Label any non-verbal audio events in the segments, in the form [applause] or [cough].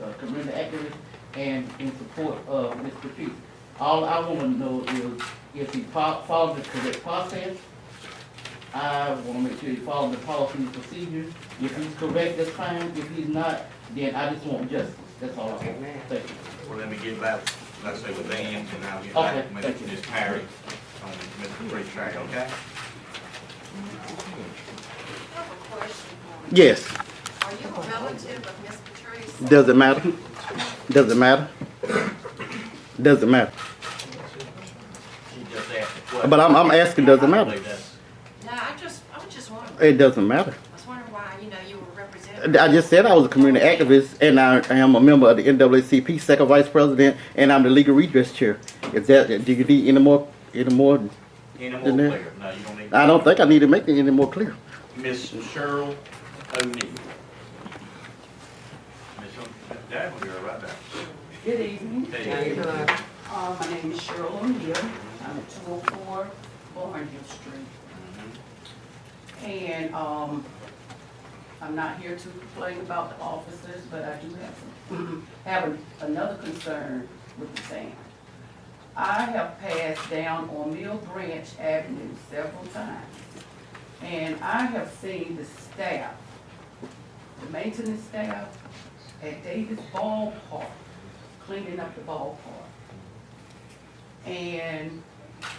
Dr. Brenda Eckers uh, and in support of Mr. Pugh. All I want to know is if he fo- follows the correct process. I want to make sure he follows the policy and procedure. If he's correct, that's fine. If he's not, then I just want justice. That's all I want. Amen. Thank you. Well, let me get back, let's say with Ann, and I'll get back Okay, thank with you. Ms. Perry on Mr. Pretrial, okay? I have a question. Yes. Are you a relative of Miss Patrice? Does it matter? Does it matter? Does it matter? She just asked a question. But I'm, I'm asking, does it I matter? believe that's- No, I just, I was just wondering, It doesn't matter. I was wondering why, you know, you were representing. I just said I was a community activist and I am a member of the NAACP, second vice president, and I'm the legal redress chair. Is that, do you need any more, any more? Any Isn't more it? clear? No, you don't need. I don't think I need to make it any more clear. Miss Cheryl O'Neill. Miss, O- that one, you're right there. Good evening. There you go. Uh, My name is Cheryl O'Neill. I'm at 204 Barnhill Street. Mm-hmm. And um, I'm not here to complain about the officers, but I do have, [clears throat] some- have an- another concern with the town. I have passed down on Mill Branch Avenue several times. And I have seen the staff, the maintenance staff at Davis Ballpark cleaning up the ballpark. And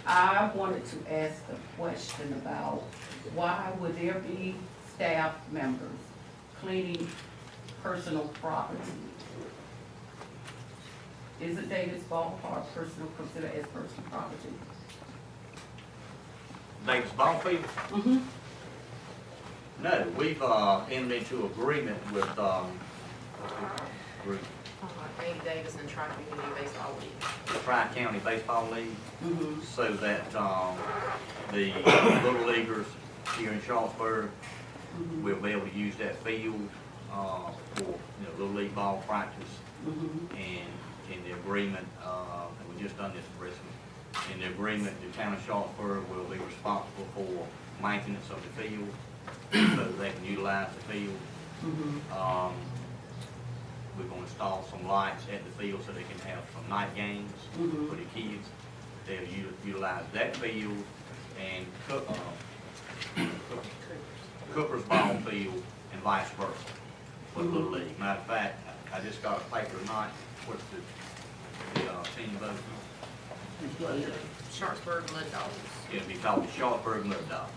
I wanted to ask a question about why would there be staff members cleaning personal property? Isn't Davis Ballpark personal, considered as personal property? Davis Bonfield? No, we've, uh, entered into agreement with, um, with Amy Davis and Tri Community Baseball League. the Tri-County Baseball League. Mm-hmm. so that, um, the little leaguers here in Charlottesburg Mm-hmm. will be able to use that field, uh, for, you know, little league ball practice. Mm-hmm. And in the agreement, uh, and we just done this recently, in the agreement, the town of Charlottesburg will be responsible for maintenance of the field, so that they can utilize the field. Mm-hmm. Um, we're gonna install some lights at the field so they can have some night games Mhm. for the kids. They'll u- utilize that field and Cook, uh, Cook- Cooper's Ball Field and vice versa for the Little League. Matter of fact, I I just got a paper tonight, what's the, the, uh, team vote? Sharpsburg Mud Dogs. It'll be called the Charlottesburg Mud Dogs.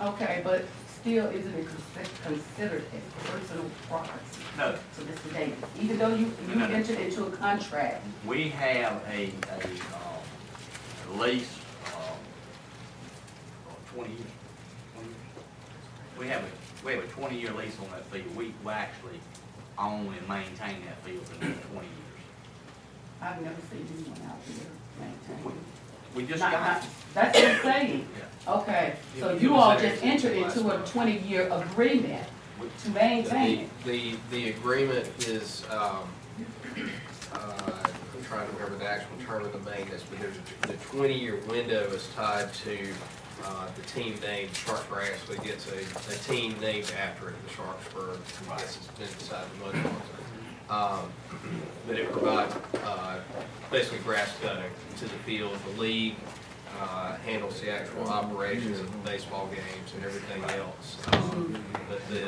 Okay, but still, isn't it consi- considered as personal property No, to Mr. Davis? Even though you, No, you no, no. entered into a contract, We have a, a, um, lease, um, twenty years. 20 years. We have a, we have a twenty-year lease on that field. We, we actually own and maintain that field for the next twenty years. I've never seen anyone out there maintaining. We just Not- got, not- That's what I'm saying. Yeah. Okay, so Yeah, you it was all entered just into entered into a last month. twenty-year agreement we- to maintain The, it. the, the agreement is, um, uh, I'm trying to remember the actual term of the maintenance, but there's, a- the twenty-year window is tied to, uh, the team name, Sharpsburg actually gets a, a team named after it, the Sharpsburg, I guess it's been inside the mud Dogs. Um, but it provides, uh, basically grass cutting to the field, the league, uh, handles the actual operations of the baseball games and everything else. Um, But the,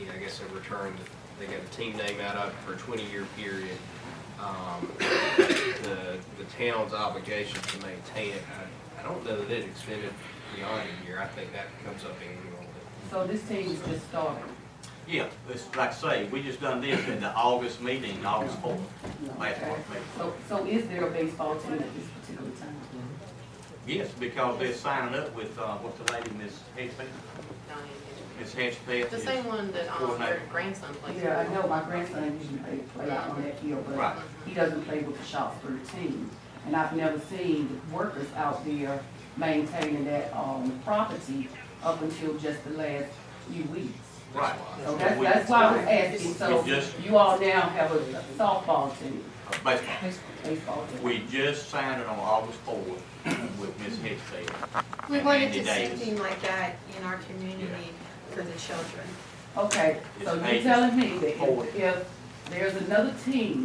you know, I guess they returned, they got a team name out of it for a twenty-year period. Um, The, the town's obligation to maintain it, I, I don't know that it extended beyond a year, I think that comes up annually. So this team is just starting. yeah, it's, like I say, we just done this in the August meeting, August fourth, last Okay. month meeting. So, so is there a baseball team at this particular time? Yes, because they're signing up with, uh, what's the lady, Miss Hedgepeth? Donnie Miss Hedgepeth. and Kendra. The is- same one that, um, your grandson plays. Yeah, I know my grandson usually play, play out on that field, but Right. he doesn't play with the Shopsburg team. And I've never seen workers out there maintaining that, um, property up until just the last few weeks. Right. So that's, that's why I was asking, so We just- you all now have a softball team, Uh, Baseball. baseball team. We just signed it on August fourth with Ms. Hickson. We wanted to see Days. something like that in our community for the children. Okay, It's so you're pages. telling me that Forward. if- if There's another team